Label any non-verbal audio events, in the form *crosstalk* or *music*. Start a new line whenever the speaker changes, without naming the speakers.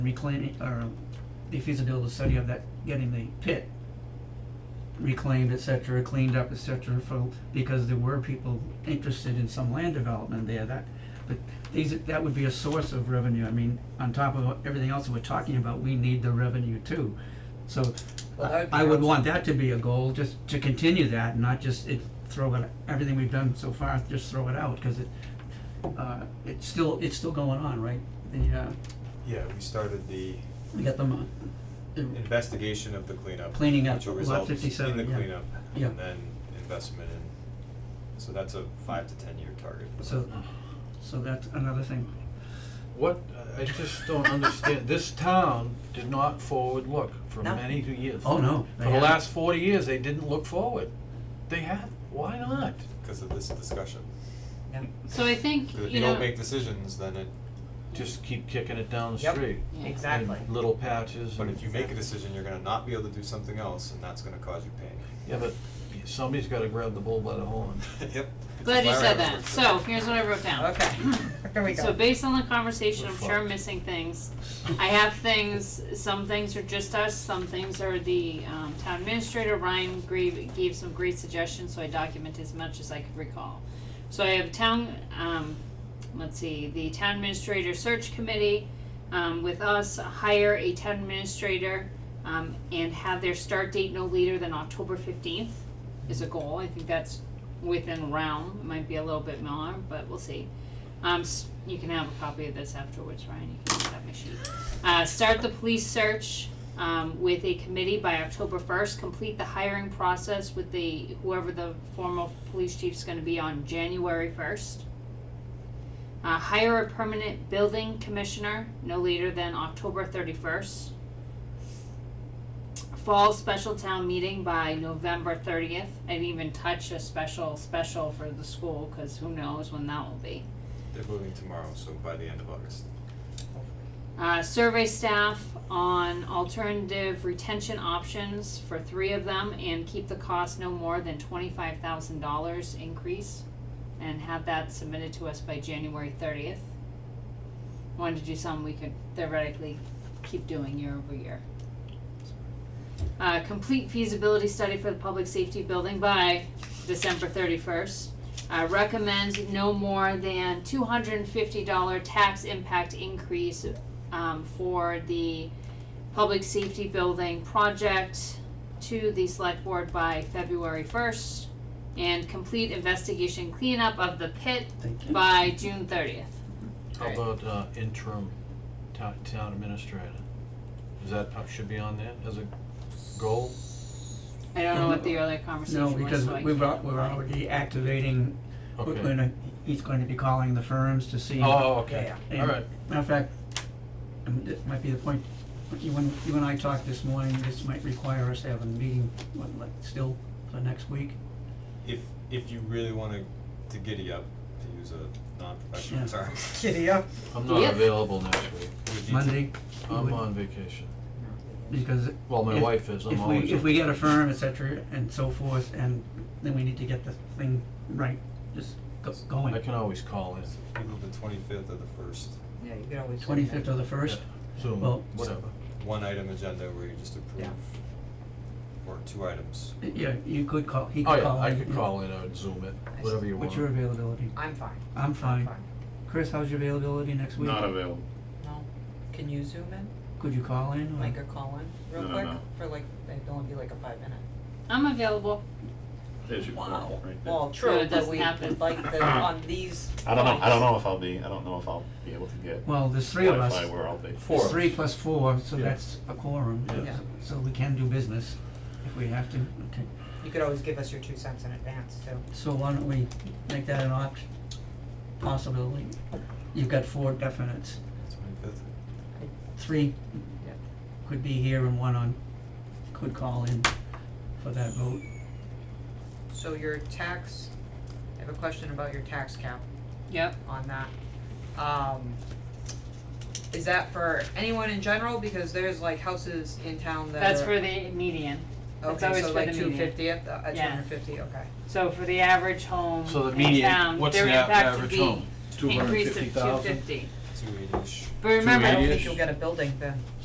reclaiming, or the feasibility study of that, getting the pit reclaimed, et cetera, cleaned up, et cetera, for, because there were people interested in some land development there, that, but these, that would be a source of revenue, I mean, on top of everything else that we're talking about, we need the revenue too. So,
Well, that
I,
would be
I would
awesome.
want that to be a goal, just to continue that, and not just it, throw it, everything we've done so far, just throw it out, cause it, uh, it's still, it's still going on, right? The, uh,
Yeah, we started the
we got them, uh,
investigation of the cleanup.
Cleaning up,
Which will
Lot
result in
57,
the
yeah.
cleanup,
Yeah.
and then investment in, so that's a five to ten year target. for
so,
that.
so that's another thing.
What, uh, I just don't understand, this town did not forward look for
No.
many two years.
Oh, no, they
For the
haven't.
last forty years, they didn't look forward. They have, why not?
Because of this discussion,
Yeah.
So I think,
'Cause if
you
you
know,
don't make decisions, then it,
Just keep kicking it down the
Yep.
street.
Yeah.
Exactly.
In little patches
but
and-
if you make a decision, you're gonna not be able to do something else, and that's gonna cause you pain. *laughs*
Yeah, but somebody's gotta grab the bull by the horn.
Yep.
glad you
That's why I
said
remember.
that, so here's what I wrote down.
*laughs* Okay, here we
So
go.
based on the conversation,
We're
I'm sure I'm
fucked.
missing things. I have things, some things are just us, some things are the, um, town administrator, Ryan gave, gave some great suggestions, so I document as much as I could recall. So I have town, um, let's see, the town administrator search committee, um, with us, hire a town administrator, um, and have their start date no later than October fifteenth is a goal, I think that's within realm, it might be a little bit more, but we'll see. Um, s- you can have a copy of this afterwards, Ryan, you can just have my sheet. Uh, start the police search, um, with a committee by October first, complete the hiring process with the, whoever the formal police chief's gonna be on January first. Uh, hire a permanent building commissioner no later than October thirty-first. Fall special town meeting by November thirtieth, I didn't even touch a special, special for the school, cause who knows when that will be.
They're moving tomorrow, so by the end of August.
uh, survey staff on alternative retention options for three of them and keep the cost no more than twenty-five thousand dollars increase and have that submitted to us by January thirtieth. Wanted to do some we could theoretically keep doing year over year. Uh, complete feasibility study for the public safety building by December thirty-first. I recommend no more than two hundred and fifty dollar tax impact increase um, for the public safety building project to the select board by February first, and complete investigation cleanup of the pit
Thank you.
by June thirtieth.
How about uh, interim town, town administrator? Is that, uh, should be on there as a goal?
I don't know what the earlier conversation
No,
was,
because
so I
we've, al-
can't
we're
lie.
already activating, we're
Okay.
gonna, he's going to be calling the firms to see.
Oh,
Yeah,
okay,
yeah.
And
all right.
Matter of fact, um, this might be the point, you and, you and I talked this morning, this might require us to have a meeting, what, like, still for next week?
If, if you really wanna to giddy up, to use a
Yeah.
non-professional term, *laughs*
Giddy up.
I'm not
Yep.
available next week.
we need to-
Monday,
I'm on vacation.
because
Well, my
If-
wife is, I'm
if we,
always.
if we get a firm, et cetera, and so forth, and then we need to get the thing right, just go,
I
going.
can always call in.
Either the twenty-fifth or the first,
Yeah, you can always. do
Twenty-fifth
that.
or the first,
Zoom,
Well-
whatever.
one item agenda where you just approve, or two items.
yeah, you could call, he
Oh
could call.
yeah, I
in,
could
yeah.
call in or Zoom it, whatever you want.
What's your availability?
I'm fine.
I'm
I'm
fine.
fine.
Chris, how's your availability next week?
Not available,
No, can you zoom in,
Could you call in? or-
like a call in, real
No,
quick,
no.
for like, it'd only be like a five minute.
I'm available,
there's your quorum right there.
Well,
No,
true,
it
but
doesn't
we
happen.
would like
*laughs*
the, on these.
I don't know, I don't
points.
know if I'll be, I don't know if I'll be able to get
Well, there's three of us.
Wi-Fi where I'll be.
Four
There's
of
Three
us.
plus four, so
Yeah.
that's a quorum,
Yeah.
Yeah.
so we can do business if we have to, okay.
You could always give us your two cents in advance too.
So why don't we make that an option, possibility? You've got four definites,
Twenty-fifth?
three
Yep.
could be here and one on, could call in for that vote.
So your tax, I have a question about your tax cap
yep.
on that. Um, is that for anyone in general? Because there's like houses in town that are.
That's for the median, that's always for the
Okay, so like two
median.
fifty at the, uh, two
Yeah.
hundred fifty, okay.
So for the average home
So the
in
median,
town,
what's
their
the a-
impact would
average
be
home?
increase of two
250,000?
fifty.
two eighty-ish.
But remember,
I don't think you'll get a building then.